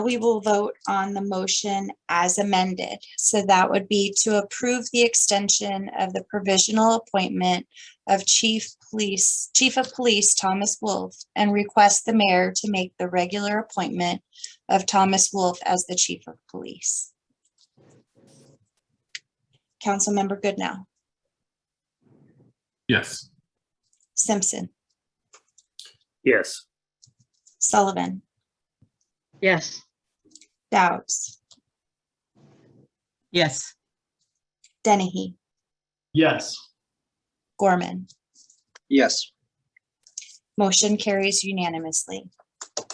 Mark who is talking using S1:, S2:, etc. S1: we will vote on the motion as amended. So that would be to approve the extension of the provisional appointment of Chief Police, Chief of Police Thomas Wolf and request the mayor to make the regular appointment of Thomas Wolf as the Chief of Police. Councilmember Goodnow,
S2: Yes.
S1: Simpson,
S3: Yes.
S1: Sullivan,
S4: Yes.
S1: Dowds,
S4: Yes.
S1: Dennehy,
S2: Yes.
S1: Gorman.
S3: Yes.
S1: Motion carries unanimously.